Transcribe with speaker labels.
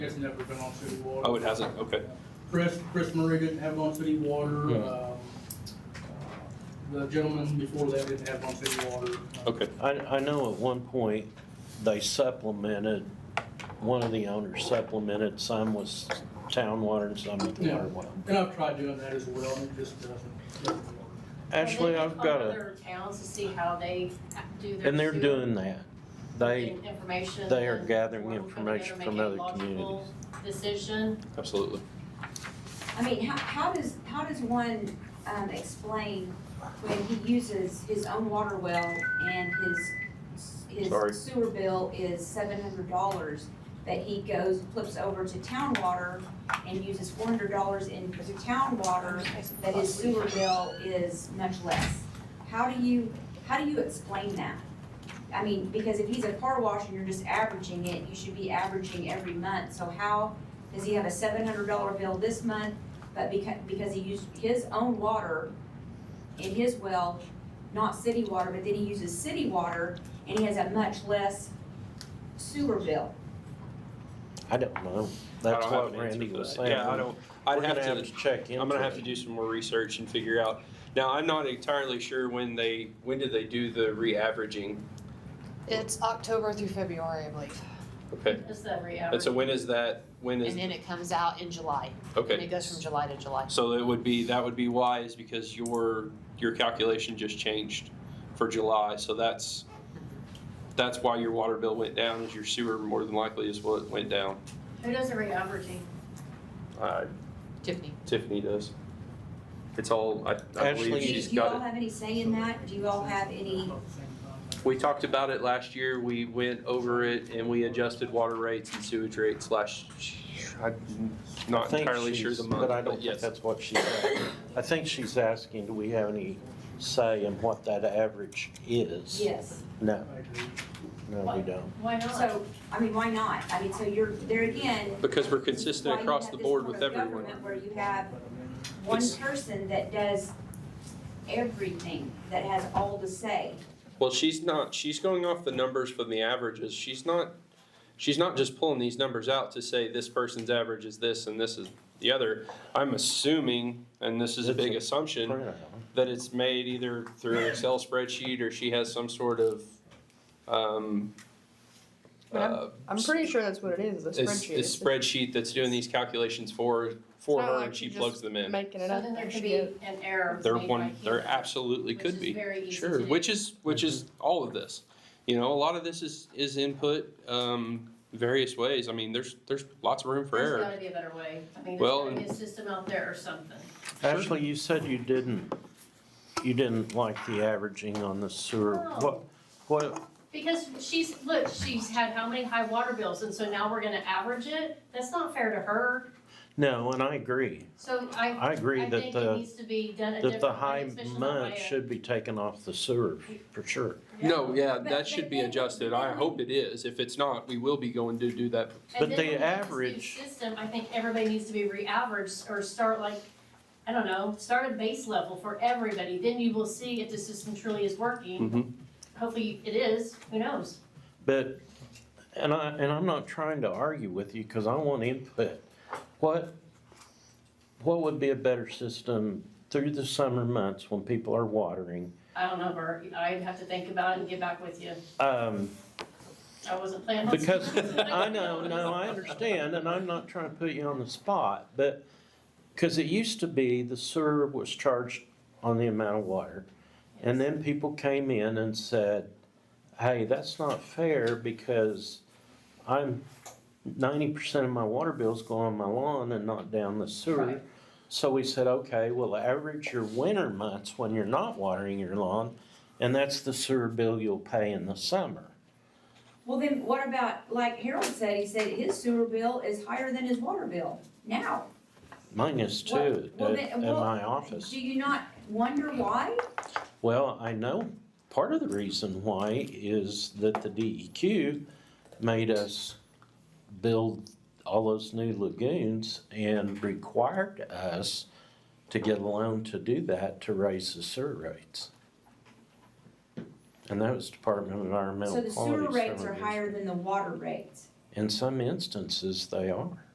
Speaker 1: It's never been on city water.
Speaker 2: Oh, it hasn't, okay.
Speaker 1: Chris, Chris Murray didn't have it on city water.
Speaker 2: Hmm.
Speaker 1: um, The gentleman before that didn't have it on city water. Uh,
Speaker 2: Okay,
Speaker 3: I, I know at one point, they supplemented, one of the owners supplemented, some was town water and some with
Speaker 1: Yeah.
Speaker 3: water well.
Speaker 1: And I've tried doing that as well, and it just doesn't- doesn't. work.
Speaker 3: Actually, I've got a,
Speaker 4: And then they call other towns to see how they do their.
Speaker 3: and they're
Speaker 4: sewer
Speaker 3: doing that. They,
Speaker 4: and information
Speaker 3: they are
Speaker 4: and
Speaker 3: gathering
Speaker 4: working
Speaker 3: information
Speaker 4: together,
Speaker 3: from
Speaker 4: make a
Speaker 3: other
Speaker 4: logical Decision.
Speaker 2: absolutely.
Speaker 5: I mean, how, how does, how does one, um, explain when he uses his own water well and his,
Speaker 2: Sorry.
Speaker 5: his sewer bill is seven hundred dollars, that he goes, flips over to town water and uses four hundred dollars into town water, that his sewer bill is much less? How do you, how do you explain that? I mean, because if he's a car wash and you're just averaging it, you should be averaging every month, so how does he have a seven hundred dollar bill this month, but because, because he used his own water in his well, not city water, but then he uses city water, and he has a much less sewer bill.
Speaker 3: I don't know.
Speaker 2: I don't
Speaker 3: That's
Speaker 2: have
Speaker 3: what
Speaker 2: an answer
Speaker 3: Randy
Speaker 2: for
Speaker 3: was
Speaker 2: that.
Speaker 3: saying.
Speaker 2: Yeah, I don't, I'd
Speaker 3: We're gonna
Speaker 2: have to,
Speaker 3: check into it.
Speaker 2: I'm gonna have to do some more research and figure out. Now, I'm not entirely sure when they, when did they do the re-averaging?
Speaker 6: It's October through February, I believe,
Speaker 2: Okay,
Speaker 4: It's every hour.
Speaker 2: and so when is that, when
Speaker 6: and
Speaker 2: is,
Speaker 6: then it comes out in July. And
Speaker 2: okay.
Speaker 6: it goes from July to July.
Speaker 2: So it would be, that would be why is because your, your calculation just changed for July, so that's, that's why your water bill went down, is your sewer more than likely is what went down.
Speaker 4: Who does the re-averaging?
Speaker 2: Uh,
Speaker 6: Tiffany,
Speaker 2: Tiffany does. It's all, I, I
Speaker 3: Ashley-
Speaker 2: believe
Speaker 5: Do you-
Speaker 2: she's
Speaker 5: do you all
Speaker 2: got it.
Speaker 5: have any say in that? Do you all have any,
Speaker 2: We talked about it last year, we went over it and we adjusted water rates and sewage rates last, I'm
Speaker 3: I
Speaker 2: not
Speaker 3: think
Speaker 2: entirely sure
Speaker 3: she's-
Speaker 2: the month,
Speaker 3: But I don't
Speaker 2: but
Speaker 3: think
Speaker 2: yes.
Speaker 3: that's what she's asking. I think she's asking, do we have any say in what that average is?
Speaker 5: yes?
Speaker 3: No,
Speaker 1: I agree.
Speaker 3: no, we don't.
Speaker 4: Why not?
Speaker 5: So, I mean, why not? I mean, so you're, there again.
Speaker 2: Because we're
Speaker 5: this is why
Speaker 2: consistent
Speaker 5: you
Speaker 2: across
Speaker 5: have
Speaker 2: the
Speaker 5: this
Speaker 2: board
Speaker 5: form
Speaker 2: with
Speaker 5: of
Speaker 2: everyone.
Speaker 5: government Where you have one
Speaker 2: It's-
Speaker 5: person that does everything, that has all the say.
Speaker 2: Well, she's not, she's going off the numbers from the averages, she's not, she's not just pulling these numbers out to say this person's average is this and this is the other. I'm assuming, and this is a
Speaker 3: It's a
Speaker 2: big assumption,
Speaker 3: Print out.
Speaker 2: that it's made either through an Excel spreadsheet or she has some sort of, um,
Speaker 7: But
Speaker 2: uh,
Speaker 7: I'm pretty sure that's what it is, the
Speaker 2: it's,
Speaker 7: spreadsheet.
Speaker 2: it's spreadsheet that's doing these calculations for, for
Speaker 7: It's not
Speaker 2: her
Speaker 7: like
Speaker 2: and she
Speaker 7: you
Speaker 2: plugs
Speaker 7: just
Speaker 2: them in.
Speaker 7: Making
Speaker 4: So
Speaker 7: it up.
Speaker 4: then there
Speaker 7: as
Speaker 4: could
Speaker 7: she
Speaker 4: be
Speaker 7: goes.
Speaker 4: an error
Speaker 2: There
Speaker 4: made by
Speaker 2: one,
Speaker 4: human,
Speaker 2: there absolutely could
Speaker 4: Which is
Speaker 2: be,
Speaker 4: very easy to
Speaker 2: sure,
Speaker 4: do.
Speaker 2: which is, which is all of this. You know, a lot of this is, is input, um, various ways, I mean, there's, there's lots of room for
Speaker 4: There's
Speaker 2: error.
Speaker 4: gotta be a better way. I mean,
Speaker 2: Well,
Speaker 4: there's gotta be a system out there or something.
Speaker 3: Ashley, you said you didn't, you didn't like the averaging on the sewer. What,
Speaker 4: No,
Speaker 3: what,
Speaker 4: Because she's, look, she's had how many high water bills, and so now we're gonna average it? That's not fair to her.
Speaker 3: no, and I agree.
Speaker 4: So I,
Speaker 3: I agree
Speaker 4: I
Speaker 3: that
Speaker 4: think it
Speaker 3: the,
Speaker 4: needs to be done
Speaker 3: that
Speaker 4: a different
Speaker 3: the
Speaker 4: way,
Speaker 3: high
Speaker 4: especially not by
Speaker 3: month
Speaker 4: a-
Speaker 3: should be taken off the sewer, for sure.
Speaker 4: Yeah.
Speaker 2: No, yeah,
Speaker 5: But-
Speaker 2: that
Speaker 5: but
Speaker 2: should be
Speaker 5: then-
Speaker 2: adjusted, I
Speaker 5: then-
Speaker 2: hope it is, if it's not, we will be going to do that
Speaker 3: But
Speaker 4: And then
Speaker 3: the
Speaker 4: when we have this new
Speaker 3: average-
Speaker 4: System, I think everybody needs to be re-averaged or start like, I don't know, start a base level for everybody. Then you will see if the system truly is working.
Speaker 2: Mhm.
Speaker 4: Hopefully it is, who knows?
Speaker 3: But, and I, and I'm not trying to argue with you, because I want input. What, what would be a better system through the summer months when people are watering?
Speaker 4: I don't know, Bert, I'd have to think about it and get back with you.
Speaker 3: Um,
Speaker 4: I wasn't planning on.
Speaker 3: Because, I know, no, I understand, and I'm not trying to put you on the spot, but, because it used to be the sewer was charged on the amount of water. And then people came in and said, hey, that's not fair because I'm, ninety percent of my water bills go on my lawn and not down the sewer.
Speaker 4: Right.
Speaker 3: So we said, okay, well, average your winter months when you're not watering your lawn, and that's the sewer bill you'll pay in the summer.
Speaker 5: Well, then what about, like Harold said, he said his sewer bill is higher than his water bill now.
Speaker 3: Mine is
Speaker 5: Well-
Speaker 3: too,
Speaker 5: well,
Speaker 3: at,
Speaker 5: then-
Speaker 3: at
Speaker 5: well,
Speaker 3: my office.
Speaker 5: Do you not wonder why?
Speaker 3: Well, I know part of the reason why is that the DEQ made us build all those new lagoons and required us to get a loan to do that to raise the sewer rates. And that was Department of
Speaker 5: So
Speaker 3: Environmental
Speaker 5: the
Speaker 3: Quality.
Speaker 5: sewer rates
Speaker 3: several
Speaker 5: are
Speaker 3: years
Speaker 5: higher
Speaker 3: ago.
Speaker 5: than the water rates.
Speaker 3: In some instances, they are.